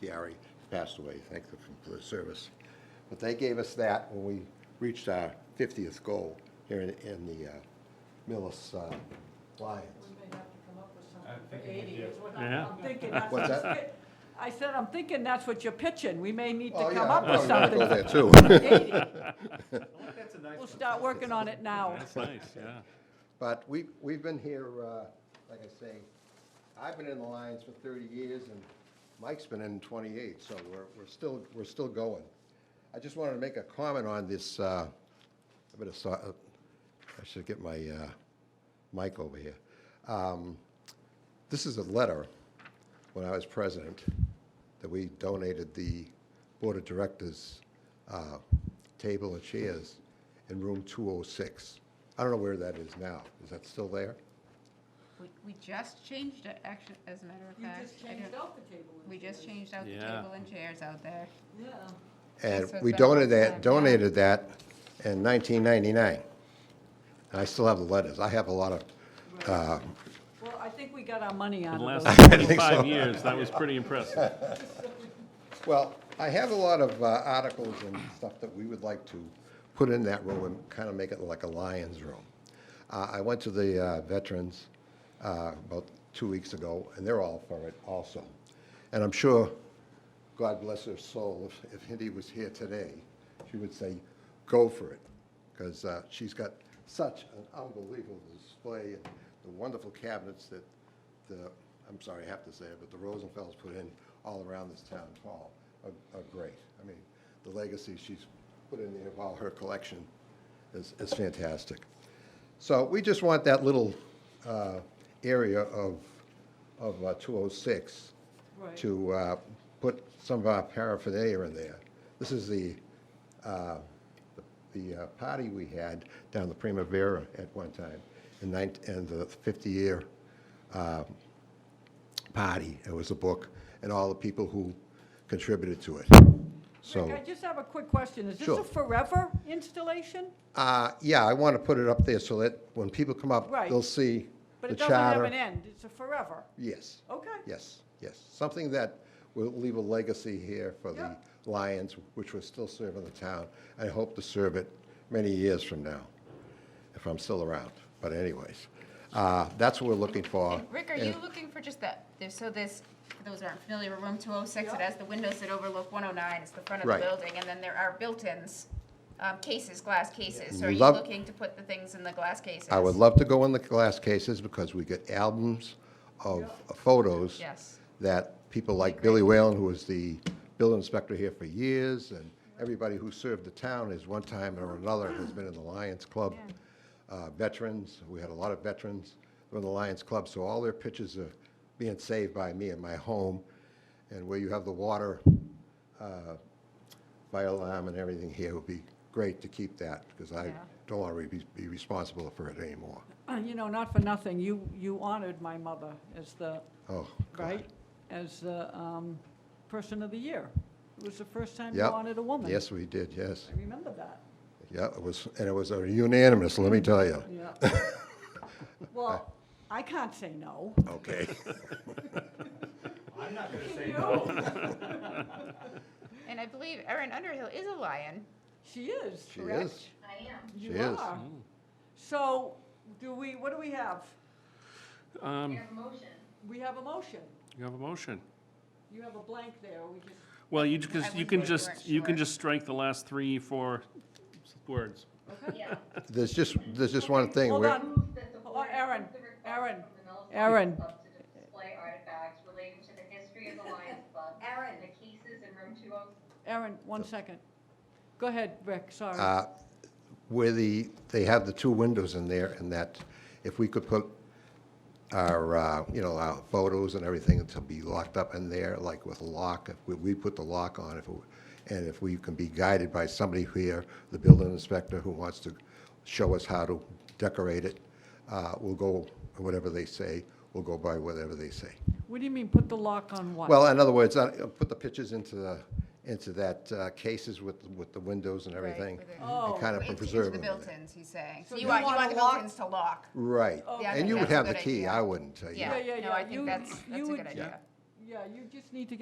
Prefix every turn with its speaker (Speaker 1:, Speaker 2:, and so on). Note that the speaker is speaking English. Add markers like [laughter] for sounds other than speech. Speaker 1: Chiari passed away, thank them for the service. But they gave us that when we reached our 50th goal here in, in the uh, Millis uh, Lions.
Speaker 2: We may have to come up with
Speaker 3: I
Speaker 2: something
Speaker 3: think
Speaker 2: for
Speaker 3: we
Speaker 2: eighty,
Speaker 3: do.
Speaker 2: is what
Speaker 4: Yeah.
Speaker 2: I'm, I'm thinking. That's
Speaker 1: What's
Speaker 2: what
Speaker 1: that?
Speaker 2: you're- I said, I'm thinking that's what you're pitching. We may need
Speaker 1: Oh,
Speaker 2: to
Speaker 1: yeah,
Speaker 2: come
Speaker 1: I
Speaker 2: up with
Speaker 1: probably
Speaker 2: something.
Speaker 1: wanna
Speaker 2: for
Speaker 1: Go there too. [laughs]
Speaker 2: 80.
Speaker 3: I like that's a nice
Speaker 2: We'll
Speaker 3: one.
Speaker 2: start working on it now.
Speaker 4: That's nice, yeah.
Speaker 1: But we, we've been here, uh, like I say, I've been in the Lions for 30 years, and Mike's been in 28, so we're, we're still, we're still going. I just wanted to make a comment on this, uh, I better, so- uh, I should get my uh, mic over here. Um, This is a letter, when I was president, that we donated the Board of Directors uh, table and chairs in room 206. I don't know where that is now. Is that still there?
Speaker 5: We, we just changed it, actually, as a matter of
Speaker 2: You
Speaker 5: fact.
Speaker 2: just
Speaker 5: I
Speaker 2: changed
Speaker 5: don't-
Speaker 2: out the table. and
Speaker 5: We just
Speaker 2: chairs.
Speaker 5: changed out the
Speaker 4: Yeah.
Speaker 5: table and chairs out there.
Speaker 2: Yeah.
Speaker 1: And
Speaker 5: That's what
Speaker 1: we
Speaker 5: that was
Speaker 1: donated that,
Speaker 5: back then.
Speaker 1: donated that in 1999. And I still have the letters. I have a lot of, uh,
Speaker 2: Well, I think we got our money out
Speaker 4: In the
Speaker 2: of
Speaker 4: last
Speaker 2: those.
Speaker 1: I think so.
Speaker 4: five years, that was
Speaker 1: [laughs]
Speaker 4: pretty impressive.
Speaker 1: well, I have a lot of uh, articles and stuff that we would like to put in that room and kind of make it like a lion's room. Uh, I went to the uh, veterans uh, about two weeks ago, and they're all for it also. And I'm sure God bless her soul, if, if Hindi was here today, she would say, go for it, because uh, she's got such an unbelievable display and the wonderful cabinets that the, I'm sorry, I have to say it, but the Rosenfels put in all around this town hall are, are great. I mean, the legacy she's put in there of all her collection is, is fantastic. So we just want that little uh, area of, of uh, 206
Speaker 2: Right.
Speaker 1: to uh, put some of our paraphernalia in there. This is the, uh, the uh, party we had down the Primavera at one time, in nine- in the 50-year party. It was a book, and all the people who contributed to it.
Speaker 2: Rick,
Speaker 1: So,
Speaker 2: I just have a quick question. Is this
Speaker 1: Sure.
Speaker 2: a forever installation?
Speaker 1: uh, yeah, I want to put it up there so that when people come up,
Speaker 2: Right.
Speaker 1: they'll see
Speaker 2: But
Speaker 1: the
Speaker 2: it doesn't have
Speaker 1: charter.
Speaker 2: an end. It's a forever.
Speaker 1: Yes,
Speaker 2: Okay. [clears throat]
Speaker 1: yes, yes. Something that will leave a legacy here for the
Speaker 2: Yeah.
Speaker 1: Lions, which will still serving the town. I hope to serve it many years from now, if I'm still around. But anyways, uh, that's what we're looking for.
Speaker 5: Rick, are
Speaker 1: And-
Speaker 5: you looking for just that, there's- so this, for those that aren't familiar, with room 206,
Speaker 2: Yeah.
Speaker 5: it has the windows that overlook 109, it's the front of the
Speaker 1: Right.
Speaker 5: building, and then there are built-ins, um, cases, glass cases. So are you
Speaker 1: Love-
Speaker 5: looking to put the things in the glass cases?
Speaker 1: I would love to go in the glass cases because we get albums of photos.
Speaker 5: Yes.
Speaker 1: That people like Billy Whalen, who was the building inspector here for years, and everybody who served the town is one time or another has been in the Lions Club. Uh, Veterans, we had a lot of veterans who were in the Lions Club, so all their pictures are being saved by me in my home. And where you have the water uh, fire alarm and everything here would be great to keep that because I
Speaker 5: Yeah.
Speaker 1: don't want to be responsible for it anymore.
Speaker 2: Uh, You know, not for nothing, you, you honored my mother as the,
Speaker 1: Oh,
Speaker 2: right, as the um, person of the year. It was the first time you
Speaker 1: Yep.
Speaker 2: honored a woman.
Speaker 1: yes, we did, yes.
Speaker 2: I remember that,
Speaker 1: Yeah, it was, and it was a unanimous, let me tell
Speaker 2: [laughs]
Speaker 1: you. [laughs]
Speaker 2: yeah. Well, I can't say no.
Speaker 1: Okay.
Speaker 3: I'm not gonna say
Speaker 2: You?
Speaker 3: no. [laughs]
Speaker 5: And I believe Erin Underhill is a lion.
Speaker 2: She is,
Speaker 1: She
Speaker 2: correct?
Speaker 1: is.
Speaker 5: I am.
Speaker 1: She
Speaker 2: You
Speaker 1: is.
Speaker 2: are.
Speaker 3: Mm.
Speaker 2: So do we, what do we have?
Speaker 4: Um,
Speaker 2: We have a motion.
Speaker 4: you have a motion.
Speaker 2: You have a blank there, we just,
Speaker 4: Well, you just,
Speaker 5: I
Speaker 4: you
Speaker 5: wouldn't
Speaker 4: can
Speaker 5: go
Speaker 4: just,
Speaker 5: direct
Speaker 4: you can
Speaker 5: short.
Speaker 4: just strike the last three, four words.
Speaker 1: There's just, there's just one thing.
Speaker 2: hold
Speaker 1: we're-
Speaker 2: on.
Speaker 6: Um,
Speaker 2: Hold on, Oh, Aaron, Aaron, Aaron.
Speaker 6: Display artifacts relating to the history of the Lions Club. Aaron. The cases in room two oh
Speaker 2: Aaron, one second. Go ahead, Rick, sorry.
Speaker 1: uh, Where the, they have the two windows in there, and that if we could put our, uh, you know, our photos and everything to be locked up in there, like with a lock, if we, we put the lock on, if, it- and if we can be guided by somebody here, the building inspector who wants to show us how to decorate it, uh, we'll go, whatever they say, we'll go by whatever they say.
Speaker 2: What do you mean, put the lock on what?
Speaker 1: Well, in other words, I, uh, put the pictures into the, into that uh, cases with, with the windows and everything.
Speaker 5: with it.
Speaker 2: Oh.
Speaker 1: And kind of preserve
Speaker 5: the
Speaker 1: them. in there.
Speaker 5: built-ins, he's saying.
Speaker 2: So
Speaker 5: So you
Speaker 2: you
Speaker 5: want, you
Speaker 2: wanna
Speaker 5: want the
Speaker 2: lock-
Speaker 5: built-ins to lock.
Speaker 1: Right.
Speaker 5: Yeah, I
Speaker 1: And
Speaker 5: think
Speaker 1: you would
Speaker 5: Oh, that's a
Speaker 1: have the
Speaker 5: good
Speaker 1: key,
Speaker 5: idea.
Speaker 1: I wouldn't, uh, you
Speaker 2: Yeah,
Speaker 5: Yeah,
Speaker 2: yeah,
Speaker 5: no,
Speaker 2: yeah.
Speaker 5: I think
Speaker 2: You-
Speaker 5: that's, that's
Speaker 2: you
Speaker 5: a
Speaker 2: would-
Speaker 5: good idea.
Speaker 2: Yeah, you just need to get